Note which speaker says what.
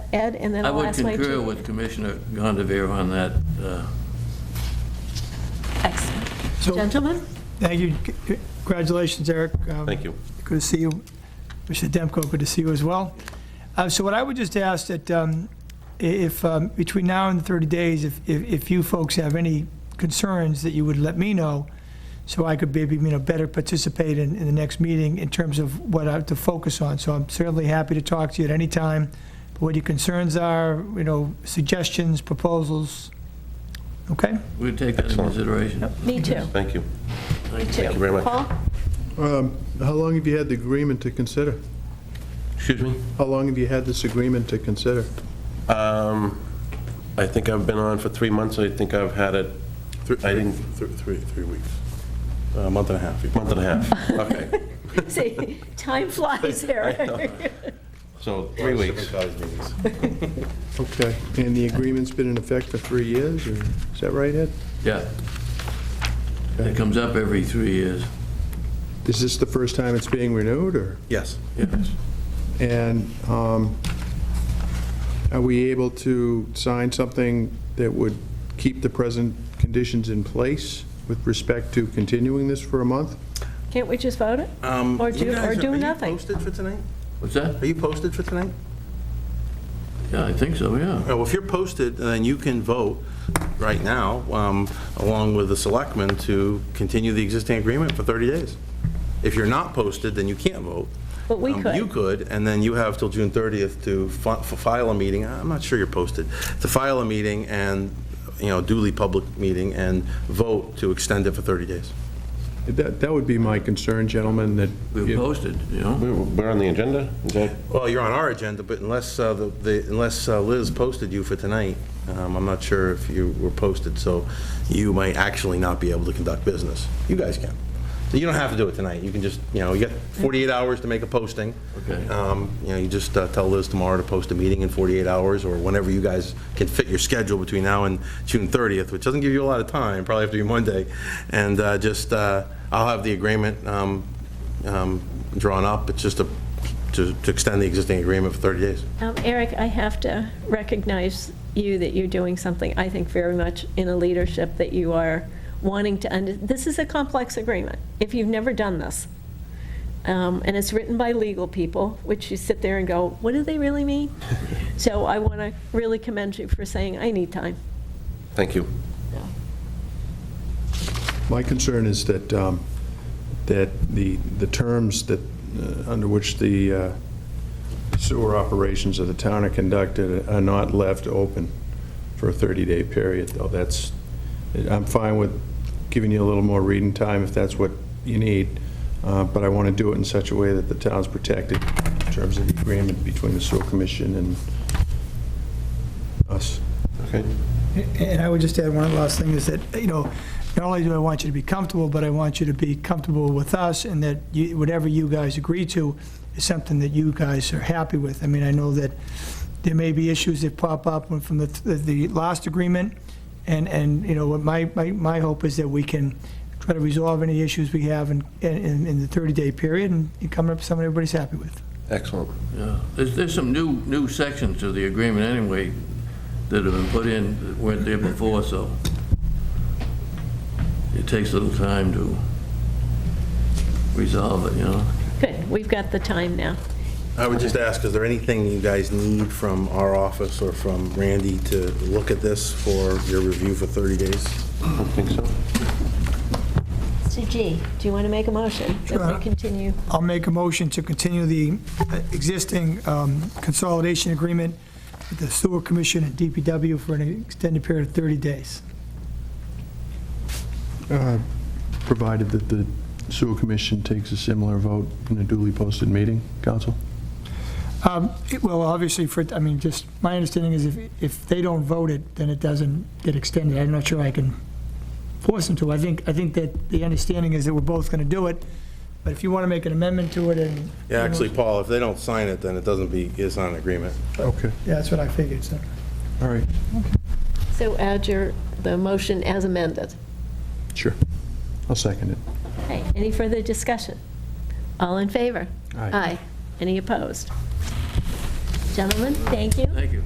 Speaker 1: Ed, and then
Speaker 2: I
Speaker 1: I'll
Speaker 2: would
Speaker 1: ask my two.
Speaker 2: concur with Commissioner Gondavere on that. uh,
Speaker 1: Excellent.
Speaker 3: So-
Speaker 1: Gentlemen,
Speaker 3: Thank you. Congratulations, Eric. Um,
Speaker 4: Thank you.
Speaker 3: Good to see you. Mr. Demko, good to see you as well. Uh, So what I would just ask that um, i- if, um, between now and 30 days, if, if if you folks have any concerns, that you would let me know, so I could maybe, you know, better participate in, in the next meeting in terms of what I have to focus on. So I'm certainly happy to talk to you at any time, what your concerns are, you know, suggestions, proposals. Okay?
Speaker 2: We'd take that into
Speaker 4: Excellent.
Speaker 2: consideration.
Speaker 1: me too,
Speaker 4: Thank you.
Speaker 1: me too.
Speaker 4: you very much.
Speaker 1: Paul?
Speaker 5: Um, How long have you had the agreement to consider?
Speaker 4: Excuse me?
Speaker 5: How long have you had this agreement to consider?
Speaker 4: Um, I think I've been on for three months, I think I've had it, I didn't,
Speaker 6: Three, three, three weeks. A month and a half.
Speaker 4: month and a half. Okay,
Speaker 1: See, time flies, Eric.
Speaker 4: so three weeks.
Speaker 5: Okay, and the agreement's been in effect for three years, or, is that right, Ed?
Speaker 2: Yeah. It comes up every three years.
Speaker 5: Is this the first time it's being renewed, or?
Speaker 6: Yes.
Speaker 2: Yes.
Speaker 5: And um, are we able to sign something that would keep the present conditions in place with respect to continuing this for a month?
Speaker 1: Can't we just vote it? Or do, or do
Speaker 6: Are Um, you
Speaker 1: nothing?
Speaker 6: posted for tonight?
Speaker 2: What's that?
Speaker 6: Are you posted for tonight? Oh,
Speaker 2: Yeah, I think so, yeah.
Speaker 6: Well, if you're posted, then you can vote right now, um, along with the selectmen, to continue the existing agreement for 30 days. If you're not posted, then you can't vote.
Speaker 1: But we
Speaker 6: Um,
Speaker 1: could.
Speaker 6: You could, and then you have till June 30th to fi- f- file a meeting, I'm not sure you're posted, to file a meeting and, you know, duly public meeting and vote to extend it for 30 days.
Speaker 5: That that would be my concern, gentlemen, that...
Speaker 2: We've posted, you know?
Speaker 4: We're- We're on the agenda? Is that,
Speaker 6: Well, you're on our agenda, but unless, uh, the- the- unless uh, Liz posted you for tonight, um, I'm not sure if you were posted, so you might actually not be able to conduct business. You guys can. So You don't have to do it tonight, you can just, you know, you got 48 hours to make a posting.
Speaker 2: Okay.
Speaker 6: Um, You know, you just uh, tell Liz tomorrow to post a meeting in 48 hours, or whenever you guys can fit your schedule between now and June 30th, which doesn't give you a lot of time, probably have to be Monday, and uh, just, uh, I'll have the agreement um, um, drawn up, it's just a to to extend the existing agreement for 30 days.
Speaker 1: Um, Eric, I have to recognize you that you're doing something, I think, very much in a leadership that you are wanting to, under- this is a complex agreement, if you've never done this. Um, And it's written by legal people, which you sit there and go, what do they really mean? So I want to really commend you for saying, I need time.
Speaker 4: thank you.
Speaker 5: My concern is that, um, that the, the terms that, uh, under which the uh, sewer operations of the town are conducted are not left open for a 30-day period, though. That's, I'm fine with giving you a little more reading time if that's what you need, uh, but I want to do it in such a way that the town's protected in terms of the agreement between the sewer commission and us.
Speaker 4: Okay,
Speaker 3: And I would just add one last thing is that, you know, not only do I want you to be comfortable, but I want you to be comfortable with us and that you- whatever you guys agree to is something that you guys are happy with. I mean, I know that there may be issues that pop up from the, the last agreement. And, and, you know, what my, my, my hope is that we can try to resolve any issues we have in, in, in the 30-day period and come up with something everybody's happy with.
Speaker 4: excellent.
Speaker 2: Yeah. There's, there's some new, new sections to the agreement anyway that have been put in that weren't there before, so it takes a little time to resolve it, you know?
Speaker 1: Good, we've got the time now.
Speaker 6: I would just ask, is there anything you guys need from our office or from Randy to look at this for your review for 30 days?
Speaker 4: I don't think so.
Speaker 1: So G, do you want to make a motion that
Speaker 3: Sure.
Speaker 1: we continue?
Speaker 3: I'll make a motion to continue the uh, existing um, consolidation agreement with the Sewer Commission and DPW for an extended period of 30 days.
Speaker 5: Uh, Provided that the sewer commission takes a similar vote in a duly posted meeting, council?
Speaker 3: Um, it- Well, obviously, for, I mean, just, my understanding is if, if they don't vote it, then it doesn't get extended. I'm not sure I can force them to. I think, I think that the understanding is that we're both going to do it, but if you want to make an amendment to it and.
Speaker 6: Yeah, actually, Paul, if they don't sign it, then it doesn't be, it's not an agreement.
Speaker 5: Okay,
Speaker 3: Yeah, that's what I figured, so.
Speaker 5: all right,
Speaker 1: So add your, the motion as amended.
Speaker 5: sure. I'll second it.
Speaker 1: Okay, any further discussion? All in favor?
Speaker 5: Aye.
Speaker 1: Any opposed? Gentlemen, thank you.
Speaker 2: Thank you.